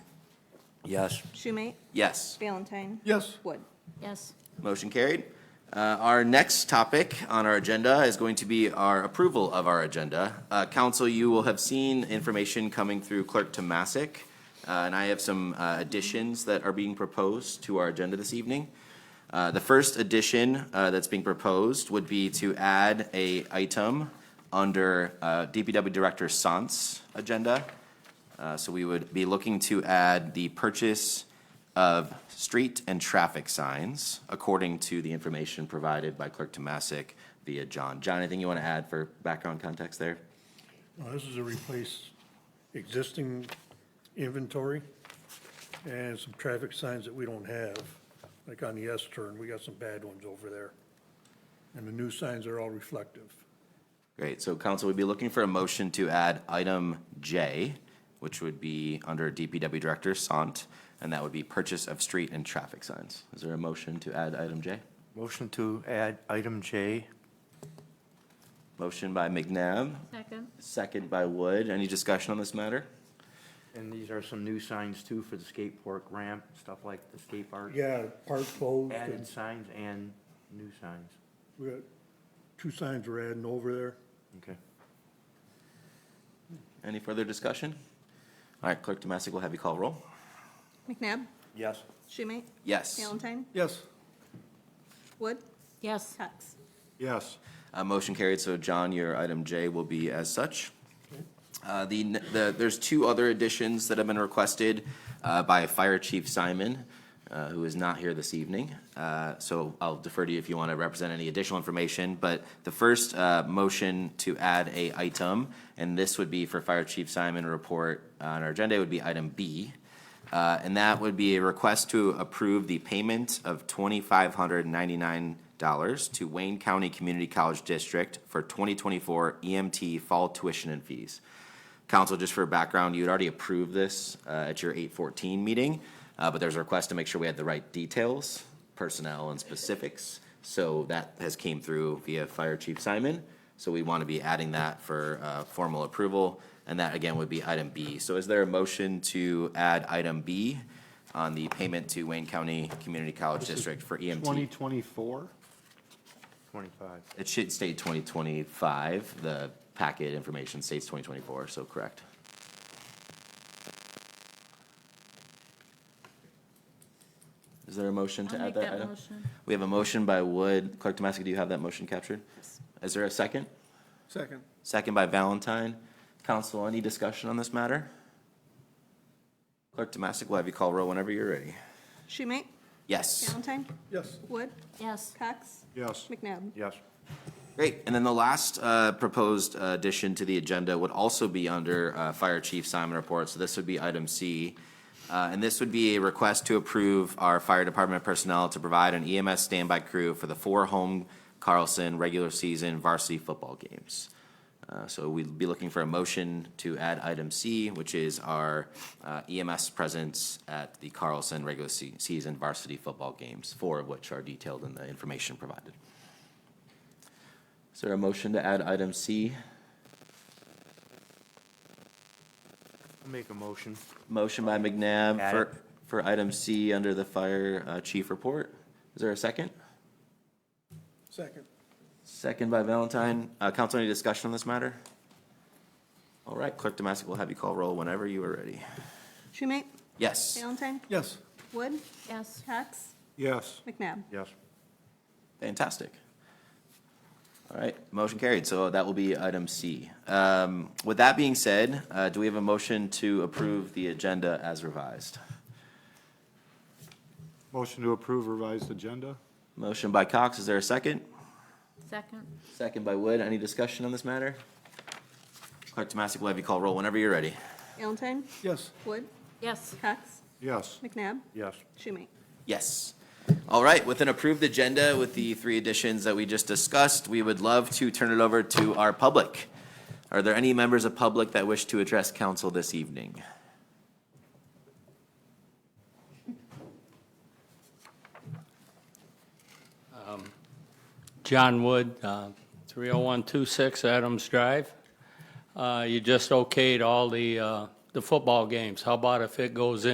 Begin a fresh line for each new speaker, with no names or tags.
Yes.
Schumate,
Yes.
Valentine,
Yes.
Wood.
Yes.
Motion carried. Uh, Our next topic on our agenda is going to be our approval of our agenda. Uh, Council, you will have seen information coming through Clerk Tomasic, uh, and I have some uh, additions that are being proposed to our agenda this evening. Uh, The first addition uh, that's being proposed would be to add a item under uh, DPW Director Sant's agenda. Uh, So we would be looking to add the purchase of street and traffic signs, according to the information provided by Clerk Tomasic via John. John, anything you want to add for background context there?
Now, this is to replace existing inventory and some traffic signs that we don't have, like on the S turn, we got some bad ones over there. And the new signs are all reflective.
Great, so council would be looking for a motion to add item J, which would be under DPW Director Sant, and that would be purchase of street and traffic signs. Is there a motion to add item J?
Motion to add item J.
Motion by McNabb,
Second.
second by Wood. Any discussion on this matter?
And these are some new signs too for the skate park ramp, stuff like the skate park.
Yeah, park closed,
Added
and
signs and new signs.
we got, two signs we're adding over there.
Okay.
Any further discussion? All right, Clerk Tomasic will have you call roll.
McNabb,
Yes.
Schumate,
Yes.
Valentine,
Yes.
Wood,
Yes.
Cox.
Yes.
Uh, motion carried, so John, your item J will be as such. Uh, the, n- the, there's two other additions that have been requested, uh, by Fire Chief Simon, uh, who is not here this evening. Uh, so I'll defer to you if you want to represent any additional information, but the first, uh, motion to add a item, and this would be for Fire Chief Simon, a report on our agenda would be item B. Uh, and that would be a request to approve the payment of twenty-five hundred ninety-nine dollars to Wayne County Community College District for twenty twenty-four EMT fall tuition and fees. Council, just for background, you had already approved this, uh, at your eight fourteen meeting, uh, but there's a request to make sure we had the right details, personnel and specifics. So that has came through via Fire Chief Simon, so we want to be adding that for, uh, formal approval. And that again would be item B. So is there a motion to add item B on the payment to Wayne County Community College District for E EMT?
2024?
Twenty-five.
It should state twenty twenty-five. The packet information states twenty twenty-four, so correct. Is there a motion to
I'll
add
make
that
that
item?
motion.
We have a motion by Wood. Clerk Tomasic, do you have that motion captured? Is there a second?
Second.
Second by Valentine. Council, any discussion on this matter? Clerk Tomasic will have you call roll whenever you're ready.
Schumate,
Yes.
Valentine,
Yes.
Wood,
Yes.
Cox,
Yes.
McNabb.
Yes.
Great. And then the last uh, proposed uh, addition to the agenda would also be under uh, Fire Chief Simon report. So this would be item C. Uh, And this would be a request to approve our fire department personnel to provide an EMS standby crew for the four home Carlson regular season varsity football games. Uh, So we'd be looking for a motion to add item C, which is our uh, EMS presence at the Carlson regular se- season varsity football games, four of which are detailed in the information provided. Is there a motion to add item C?
I'll make a motion.
Motion by McNabb
Add
for, for item C under the fire uh, chief report. Is there a second?
Second.
Second by Valentine. Uh, council, any discussion on this matter? All right, Clerk Domestic will have you call roll whenever you are ready.
Schumate,
Yes,
Valentine,
Yes.
Wood,
Yes.
Cox,
Yes.
McNabb.
Yes.
fantastic. All right, motion carried. So that will be item C. Um, with that being said, uh, do we have a motion to approve the agenda as revised?
Motion to approve revised agenda?
Motion by Cox, is there a second?
Second.
Second by Wood. Any discussion on this matter? Clerk Tomasic will have you call roll whenever you're ready.
Valentine,
Yes.
Wood,
Yes.
Cox,
Yes.
McNabb,
Yes.
Schumate.
Yes. All right, with an approved agenda with the three additions that we just discussed, we would love to turn it over to our public. Are there any members of public that wish to address council this evening?
John Wood, uh, 30126 Adams Drive. Uh, You just okayed all the, uh, the football games. How about if it goes in?